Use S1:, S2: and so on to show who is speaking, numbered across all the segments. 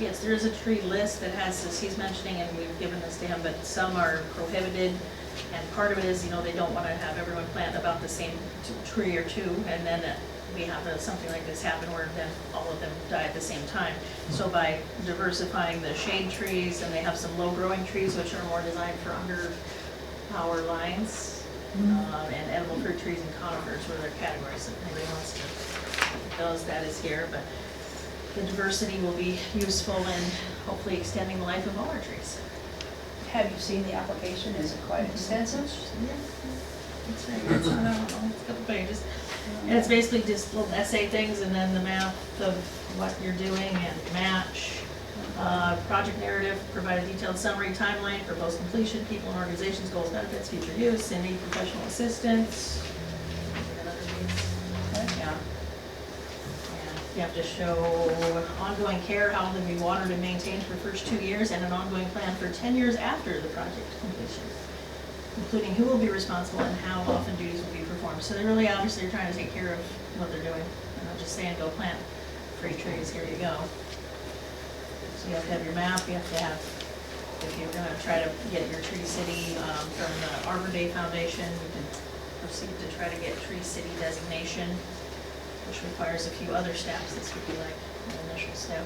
S1: Yes, there is a tree list that has this, he's mentioning, and we've given this to him, but some are prohibited. And part of it is, you know, they don't want to have everyone plant about the same t- tree or two, and then uh, we have uh, something like this happen where then all of them die at the same time. So by diversifying the shade trees, and they have some low-growing trees, which are more designed for under power lines, um, and edible fruit trees and conifers were their categories, if anybody wants to, those, that is here, but the diversity will be useful in hopefully extending the life of all our trees.
S2: Have you seen the application? Is it quite extensive?
S1: It's very, it's not, I don't know, it's a couple pages. And it's basically just little essay things and then the map of what you're doing and match. Uh, Project narrative, provide a detailed summary timeline for post completion, people and organizations, goals, benefits, future use, and need professional assistance. And other needs. Yeah. And You have to show ongoing care, how they'll be watered and maintained for the first two years, and an ongoing plan for 10 years after the project completion, including who will be responsible and how often duties will be performed. So they really obviously are trying to take care of what they're doing. They're not just saying, go plant three trees, here you go. So you have to have your map, you have to have, if you're gonna try to get your Tree City um, from the Arbor Day Foundation, you can proceed to try to get Tree City designation which requires a few other steps. This would be like an initial step.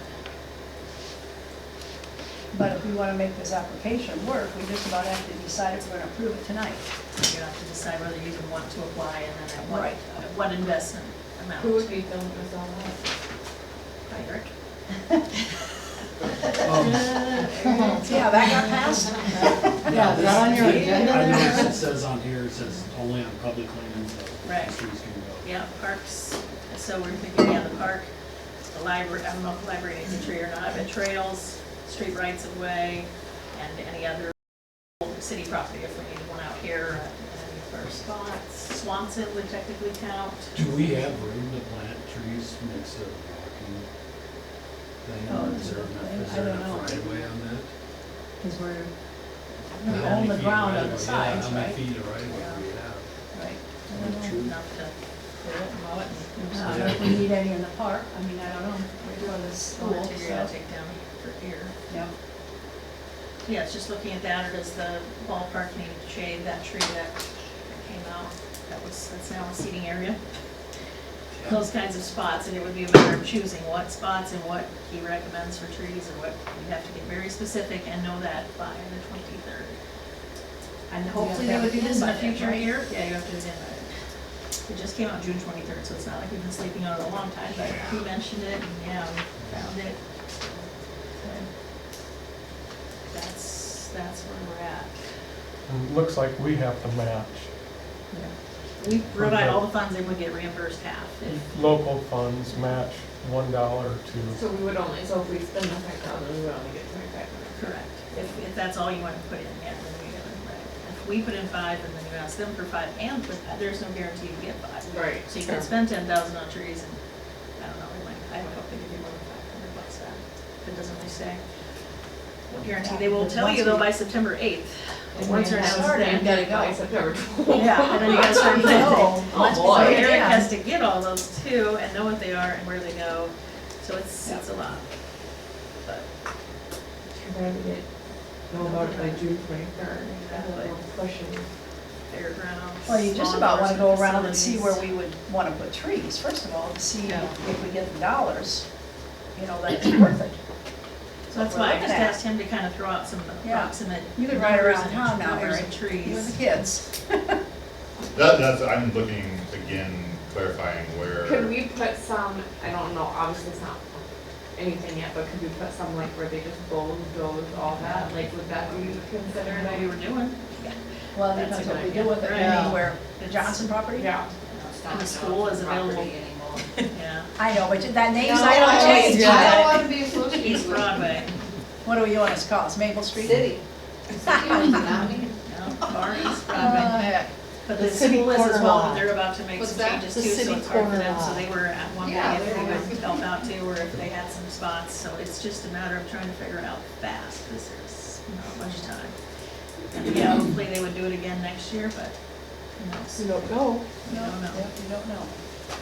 S2: But if we want to make this application work, we just about have to decide if we're going to approve it tonight.
S1: You have to decide whether you even want to apply and then at what,
S2: Right.
S1: at what investment amount.
S3: Who would be filming this all out?
S1: Hi, Eric.
S4: Um,
S2: Yeah, that got passed.
S4: Yeah,
S5: is that on your
S4: this-
S5: agenda
S4: I
S5: there?
S4: noticed it says on here, it says only on public lands
S1: Right.
S4: that trees can go.
S1: Yeah, parks, so we're thinking, yeah, the park, the library, I don't know if the library needs a tree or not, but trails, street rights of way, and any other city property if we need one out here, uh, any first spots. Swanson would technically count.
S4: Do we have room to plant trees next to the parking thing?
S2: Oh,
S4: or Is there enough, is
S2: I
S4: there
S2: don't know.
S4: enough right away on that?
S5: Because we're,
S2: We
S4: How
S2: own
S4: many
S2: the
S4: feet
S2: ground
S4: right
S2: on the
S4: away- yeah,
S2: sides,
S4: How many
S2: right?
S4: feet of right away do we have?
S2: Right.
S1: Enough to clear it, mow it, and
S2: Uh, If we need any in the park, I mean, I don't know, we're doing this school,
S1: Well, you gotta
S2: so.
S1: take down for here.
S2: Yeah.
S1: Yeah, it's just looking at that, or does the ballpark need to shade that tree that came out? That was, that's now a seating area. Those kinds of spots, and it would be a matter of choosing what spots and what he recommends for trees or what, we have to get very specific and know that by the twenty-third. And hopefully they would do this in a future year. Yeah, you have to do that. It just came out June twenty-third, so it's not like we've been sleeping on it a long time, but he mentioned it, and yeah, we found it. That's, that's where we're at.
S6: It Um, Looks like we have to match
S1: We provide all the funds and we get reimbursed half. If-
S6: local funds, match one dollar to,
S3: So we would only, so if we spend the five thousand, we would only get twenty-five hundred.
S1: Correct. If, if that's all you want to put in, yeah, then we get it, right. If we put in five and then you ask them for five and put, there's no guarantee you get five.
S3: Right.
S1: So you can spend ten thousand on trees and, I don't know, we might, I would hope they give you more than five hundred bucks that. It doesn't really say. No Guarantee, they will tell you though by September eighth. Once they're
S3: And
S1: started.
S3: then it by September twelfth.
S1: Yeah, and then you gotta start planting.
S3: Oh,
S1: So
S3: boy.
S1: Eric has to get all those too and know what they are and where they go, so it's, it's a lot. But
S3: Too bad we didn't know about it by June twenty-third.
S1: Exactly.
S3: Question.
S1: fairgrounds.
S2: Well, you just
S1: law
S2: about want to go
S1: enforcement
S2: around and see where
S1: facilities.
S2: we would want to put trees, first of all, to see
S1: Yeah.
S2: if we get the dollars, you know, that it's worth it.
S1: So that's
S2: what we're
S1: why I
S2: looking
S1: just
S2: at.
S1: asked him to kind of throw out some
S2: Yeah.
S1: approximate.
S2: You could ride
S1: numbers
S2: around
S1: and
S2: town now,
S1: numbers
S2: Eric.
S1: and
S2: With the
S1: Trees.
S2: kids.
S7: That, that's, I'm looking, again, clarifying
S3: Could
S7: where,
S3: we put some, I don't know, obviously it's not anything yet, but could we put some like where they just bulldoze all that? Like would that be
S1: Better
S3: considered
S1: than we
S3: a?
S1: were doing.
S2: Well,
S1: That's
S2: depends
S1: a
S2: what
S1: good
S2: we do
S1: idea.
S2: with it,
S1: Right.
S2: I mean, where, the Johnson property?
S3: Yeah.
S1: And the school is available. Yeah,
S2: I know, but that name's
S8: No,
S2: I
S8: I
S2: don't change.
S8: I don't want to be
S1: East
S8: associated with
S1: Broadway,
S2: What do you want us to call us, Maple
S8: the
S2: Street?
S8: city. City owns it, not me.
S1: no, far East Broadway.
S2: Uh, heck.
S1: But
S5: The
S1: the
S5: city
S1: school is as
S5: corner
S1: well,
S5: lot.
S1: but they're about to make
S8: What's
S1: some
S8: that?
S1: changes
S5: The
S1: too, so
S5: city
S1: it's hard for
S5: corner
S1: them, so
S5: lot.
S1: they were at one day,
S8: Yeah,
S1: if they
S8: they were.
S1: would help out too, or if they had some spots, so it's just a matter of trying to figure it out fast, because there's not much time. And yeah, hopefully they would do it again next year, but, you know,
S3: We don't know.
S1: I
S2: No,
S1: don't know.
S2: you don't know.